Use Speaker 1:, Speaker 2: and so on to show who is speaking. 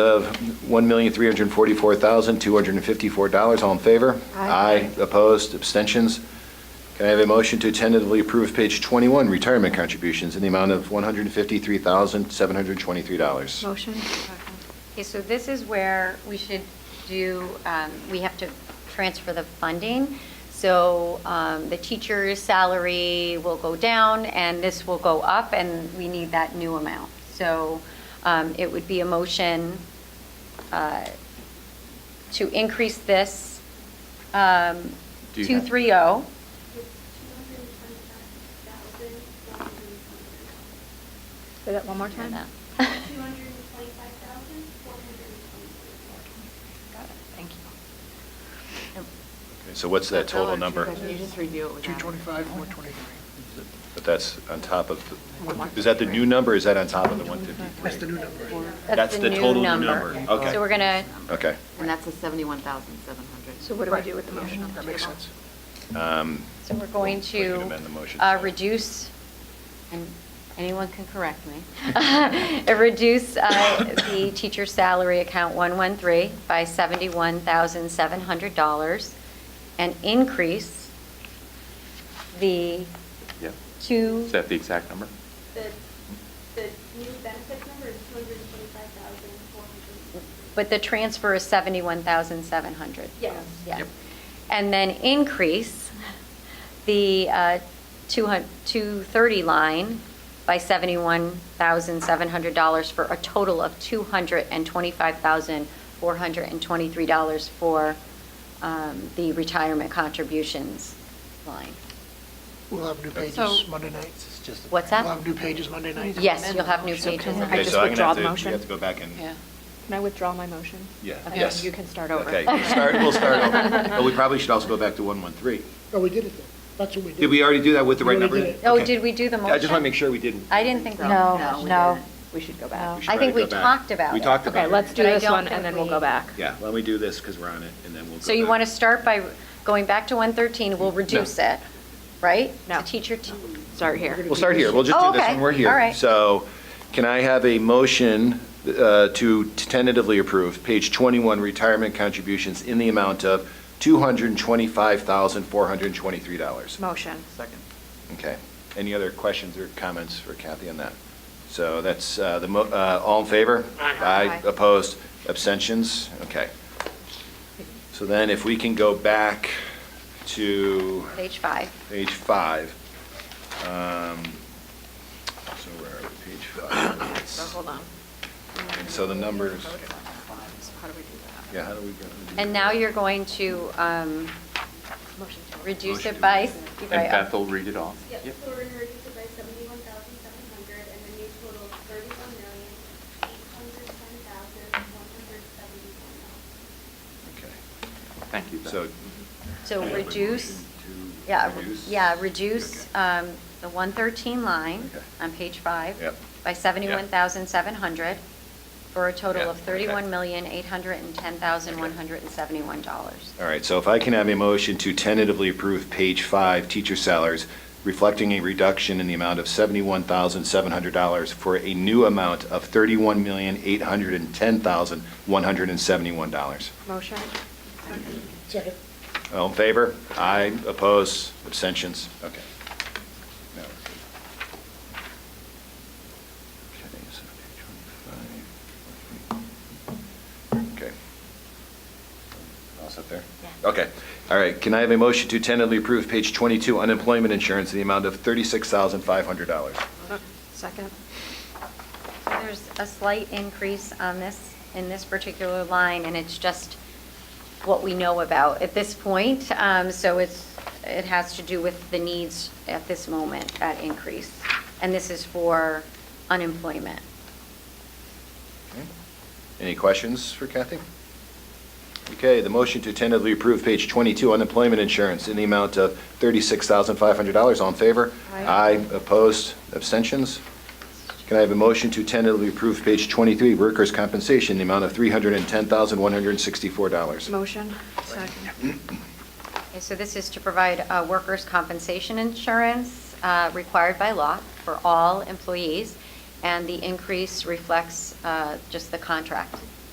Speaker 1: of $1,344,254. All in favor?
Speaker 2: Aye.
Speaker 1: Opposed? Abstentions? Can I have a motion to tentatively approve page 21, retirement contributions, in the amount of $153,723?
Speaker 2: Motion?
Speaker 3: Okay, so this is where we should do, um, we have to transfer the funding. So um, the teacher's salary will go down, and this will go up, and we need that new amount. So um, it would be a motion uh, to increase this um, oh.
Speaker 1: Do you have-
Speaker 3: 230.
Speaker 2: Say that one more time.
Speaker 3: Thank you.
Speaker 1: Okay, So what's that total number?
Speaker 4: You just review it with them.
Speaker 5: 225, 123.
Speaker 1: But that's on top of, the- is that the new number, or is that on top of the 153?
Speaker 5: That's the new number.
Speaker 3: That's the total new number.
Speaker 1: Okay.
Speaker 3: So we're going to,
Speaker 1: Okay.
Speaker 4: And that's the 71,700.
Speaker 2: So what do we do with the motion?
Speaker 5: That makes sense.
Speaker 1: Um,
Speaker 3: so we're going
Speaker 1: We could
Speaker 3: to
Speaker 1: amend the motion.
Speaker 3: uh, reduce, and anyone can correct me, Uh, reduce uh, the teacher salary account 113 by $71,700 and increase the
Speaker 6: Yep.
Speaker 3: two,
Speaker 6: Is that the exact number?
Speaker 7: The, the new benefits number is two hundred and twenty-five thousand, four hundred.
Speaker 3: but the transfer is 71,700.
Speaker 7: Yes.
Speaker 3: Yeah. And then increase the uh, 200 230 line by $71,700 for a total of $225,423 for um, the retirement contributions line.
Speaker 5: We'll have new
Speaker 3: So-
Speaker 5: pages Monday nights. It's just-
Speaker 3: What's that?
Speaker 5: We'll have new pages Monday nights.
Speaker 3: Yes, you'll have new
Speaker 4: So
Speaker 3: pages.
Speaker 4: can I
Speaker 1: Okay,
Speaker 4: just
Speaker 1: so I'm gonna have
Speaker 4: withdraw
Speaker 1: to-
Speaker 4: the motion?
Speaker 1: You have to go back and,
Speaker 4: Yeah.
Speaker 2: Can I withdraw my motion?
Speaker 1: yeah,
Speaker 4: Okay,
Speaker 1: yes.
Speaker 4: you can start over.
Speaker 1: Okay, we'll start, we'll start over. But we probably should also go back to 113.
Speaker 5: No, Oh, we did it then. That's what we did.
Speaker 1: Did we already do that with the
Speaker 5: We
Speaker 1: right
Speaker 5: already
Speaker 1: number?
Speaker 5: did it.
Speaker 3: Oh,
Speaker 1: Okay.
Speaker 3: did we do the motion?
Speaker 1: I just want to make sure we didn't.
Speaker 3: I didn't think. we-
Speaker 4: we
Speaker 2: no.
Speaker 4: didn't. We should go back.
Speaker 1: We should
Speaker 3: I
Speaker 1: try
Speaker 3: think
Speaker 1: to go
Speaker 3: we
Speaker 1: back.
Speaker 3: talked about
Speaker 1: We
Speaker 3: it.
Speaker 1: talked about
Speaker 4: Okay,
Speaker 1: it.
Speaker 4: let's do
Speaker 3: But I
Speaker 4: this
Speaker 3: don't
Speaker 4: one,
Speaker 3: think
Speaker 4: and then we'll
Speaker 3: we-
Speaker 4: go back.
Speaker 1: Yeah, why don't we do this, because we're on it, and then we'll go
Speaker 3: So you
Speaker 1: back.
Speaker 3: want to start by going back to 113, we'll reduce it, right?
Speaker 4: No.
Speaker 3: To teacher, t-
Speaker 4: Start here.
Speaker 1: We'll start here, we'll just
Speaker 3: Oh,
Speaker 1: do this
Speaker 3: okay.
Speaker 1: when we're here.
Speaker 3: All right.
Speaker 1: So can I have a motion uh, to tentatively approve page 21, retirement contributions in the amount of $225,423?
Speaker 4: Motion.
Speaker 1: Okay. Any other questions or comments for Kathy on that? So that's uh, the, mo- uh, all in favor? Aye. Opposed? Abstentions? Okay. So then if we can go back to
Speaker 3: page five.
Speaker 1: page five. um, So where are we, page
Speaker 4: So
Speaker 1: five?
Speaker 4: hold on.
Speaker 1: And so the numbers,
Speaker 4: So how do we do that?
Speaker 1: yeah, how do we? go- how do we
Speaker 3: And
Speaker 1: do
Speaker 3: now
Speaker 1: that?
Speaker 3: you're going to um, reduce
Speaker 6: Motion
Speaker 3: it
Speaker 6: to
Speaker 3: by,
Speaker 6: And
Speaker 3: right,
Speaker 6: Beth will read it off.
Speaker 7: Yep, so we're gonna reduce it by seventy-one thousand, seven hundred, and the new total is thirty-one million, eight hundred ten thousand, one hundred seventy-one dollars.
Speaker 1: Okay.
Speaker 6: Thank you, Beth.
Speaker 1: So.
Speaker 3: so
Speaker 1: I have a
Speaker 3: reduce,
Speaker 1: motion to
Speaker 3: yeah, re-
Speaker 1: reduce.
Speaker 3: yeah, reduce
Speaker 1: Okay.
Speaker 3: um, the 113 line
Speaker 1: Okay.
Speaker 3: on page five
Speaker 1: Yep.
Speaker 3: by 71,700 for a
Speaker 1: Yeah,
Speaker 3: total of
Speaker 1: okay.
Speaker 3: $31,810,171.
Speaker 1: All right, so if I can have a motion to tentatively approve page five, teacher salaries, reflecting a reduction in the amount of seventy-one thousand, seven hundred dollars for a new amount of thirty-one million, eight hundred and ten thousand, one hundred and seventy-one dollars.
Speaker 4: Motion?
Speaker 3: Oh.
Speaker 5: Second.
Speaker 1: All in favor? Aye, opposed, abstentions? Okay. Now we're good. Okay, so page 25. Okay. All set there?
Speaker 3: Yeah.
Speaker 1: Okay, all right. Can I have a motion to tentatively approve page 22 unemployment insurance in the amount of $36,500?
Speaker 4: Second?
Speaker 3: So There's a slight increase on this, in this particular line, and it's just what we know about at this point. Um, So it's, it has to do with the needs at this moment, that increase. And this is for unemployment.
Speaker 1: Okay. Any questions for Kathy? Okay, the motion to tentatively approve page 22 unemployment insurance in the amount of $36,500. All in favor?
Speaker 2: Aye.
Speaker 1: opposed, abstentions? Can I have a motion to tentatively approve page 23 workers' compensation in the amount of $310,164?
Speaker 4: Motion? Second.
Speaker 3: Okay, So this is to provide uh, workers' compensation insurance uh, required by law for all employees, and the increase reflects uh, just the contract